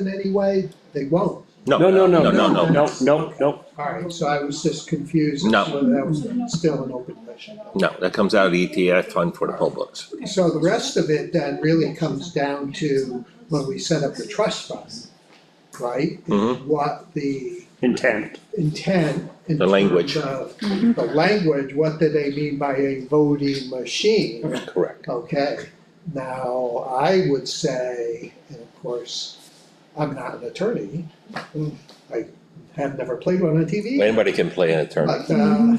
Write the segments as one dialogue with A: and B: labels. A: in any way, they won't.
B: No,
C: No, no, no,
B: no, no, no.
C: no, no, no.
A: All right, so I was just confused. as
B: No.
A: to whether That was still an open question.
B: No, that comes out of the ETF fund for the publics.
A: So the rest of it then really comes down to when we set up the trust fund, right?
B: Mhm.
A: What the
C: Intent.
A: intent. in
B: The language.
A: terms of The language, what do they mean by a voting machine?
B: Correct.
A: Okay, now I would say, and of course, I'm not an attorney. I have never played one on TV.
B: Anybody can play an attorney.
A: But, uh,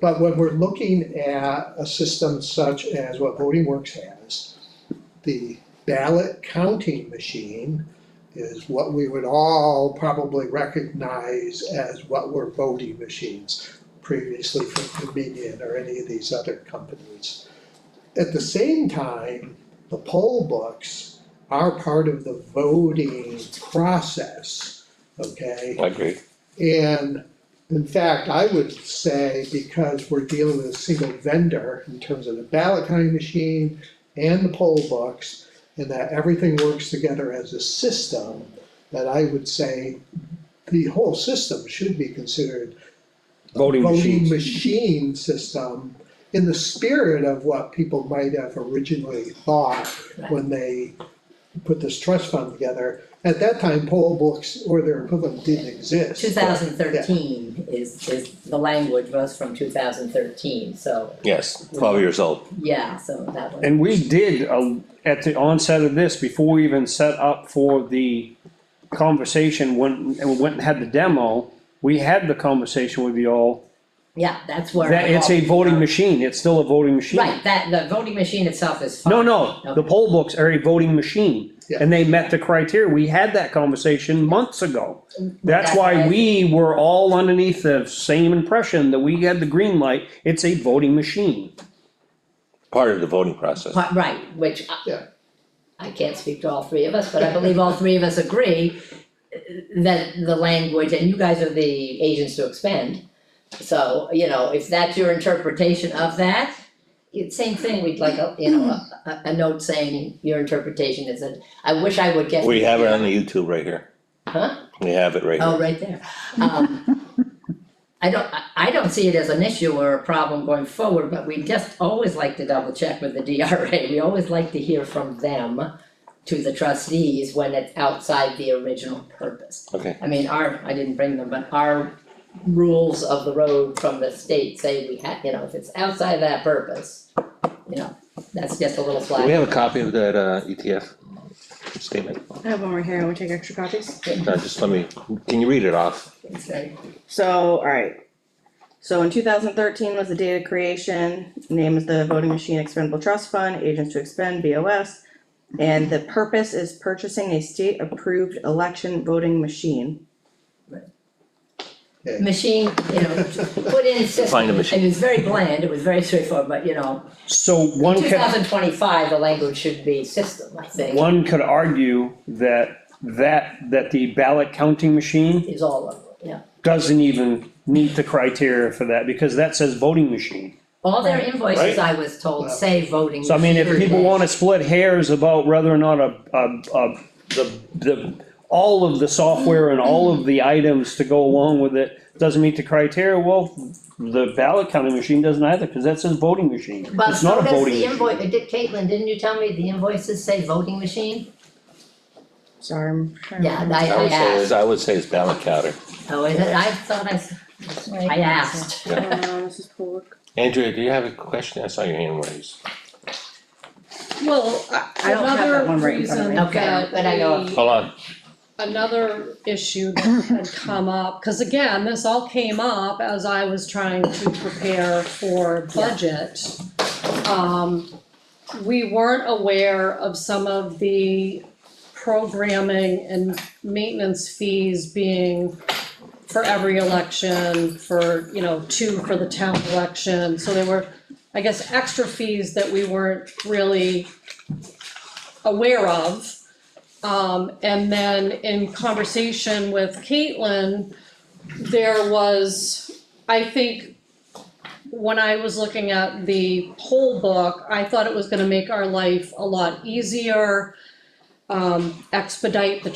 A: but when we're looking at a system such as what Voting Works has, the ballot counting machine is what we would all probably recognize as what were voting machines previously from Dominion or any of these other companies. At the same time, the poll books are part of the voting process, okay?
B: I agree.
A: And in fact, I would say because we're dealing with a single vendor in terms of the ballot counting machine and the poll books, and that everything works together as a system, that I would say the whole system should be considered
C: Voting
A: voting
C: machines.
A: machine system in the spirit of what people might have originally thought when they put this trust fund together. At that time, poll books or their equivalent didn't exist.
D: Two thousand thirteen is, is, the language was from two thousand thirteen, so,
B: Yes, twelve years old.
D: yeah, so that one.
C: And we did, uh, at the onset of this, before we even set up for the conversation, when, and we went and had the demo, we had the conversation with you all,
D: Yeah, that's where.
C: that it's a voting machine, it's still a voting machine.
D: Right, that, the voting machine itself is fine.
C: No, no, the poll books are a voting machine,
A: Yeah.
C: and they met the criteria, we had that conversation months ago. That's
D: That's
C: why
D: right.
C: we were all underneath the same impression that we had the green light, it's a voting machine.
B: Part of the voting process.
D: Part- Right, which I-
A: Yeah.
D: I can't speak to all three of us, but I believe all three of us agree uh, that the language, and you guys are the agents to expend. So, you know, if that's your interpretation of that, it, same thing, we'd like, a you know, a, a- a note saying your interpretation is that, I wish I would get.
B: We have it on the YouTube right here.
D: Huh?
B: We have it right here.
D: Oh, right there. Um, I don't, I, I don't see it as an issue or a problem going forward, but we just always like to double check with the DRA. We always like to hear from them to the trustees when it's outside the original purpose.
B: Okay.
D: I mean, our, I didn't bring them, but our rules of the road from the state say we have, you know, if it's outside that purpose, you know, that's just a little
B: Do we
D: flag.
B: have a copy of that uh ETF statement?
E: I have one right here, I will take extra copies.
B: No, just let me, can you read it off?
D: It's very-
E: So, alright. So in two thousand thirteen was the data creation, name is the voting machine expendable trust fund, agents to expend, BOS. And the purpose is purchasing a state approved election voting machine.
D: Machine, you know, put in system.
B: Find a machine.
D: And it's very bland, it was very straightforward, but you know,
C: So one
D: Two
C: could,
D: thousand twenty-five, the language should be system, I think,
C: one could argue that, that, that the ballot counting machine
D: is all of it, yeah.
C: doesn't even meet the criteria for that, because that says voting machine.
D: All their
B: Right.
D: invoices, I was told, say voting.
C: So I mean, if
D: machine.
C: people wanna split hairs about whether or not a, a, a, the, the, all of the software and all of the items to go along with it doesn't meet the criteria, well, the ballot counting machine doesn't either, cause that says voting machine.
D: But
C: It's not
D: so
C: a
D: does
C: voting
D: the invoice,
C: machine.
D: did Caitlin, didn't you tell me the invoices say voting machine?
E: Sorry, I'm trying to.
D: Yeah,
E: remember.
D: I,
B: I
D: I
B: would say
D: asked,
B: is, I would say it's ballot counter.
D: oh, is it, I thought I, s- I asked.
E: Uh, Mrs. Polk.
B: Andrea, do you have a question? I saw your hand raised.
F: Well,
E: I don't have that one
F: another
E: right in front of
F: reason
E: me.
D: Okay,
F: that
D: but I know-
F: we-
B: Hold on.
F: another issue that had come up, cause again, this all came up as I was trying to prepare for budget. Um, we weren't aware of some of the programming and maintenance fees being for every election, for, you know, two for the town election, so there were, I guess, extra fees that we weren't really aware of. Um, and then in conversation with Caitlin, there was, I think, when I was looking at the poll book, I thought it was gonna make our life a lot easier, um, expedite the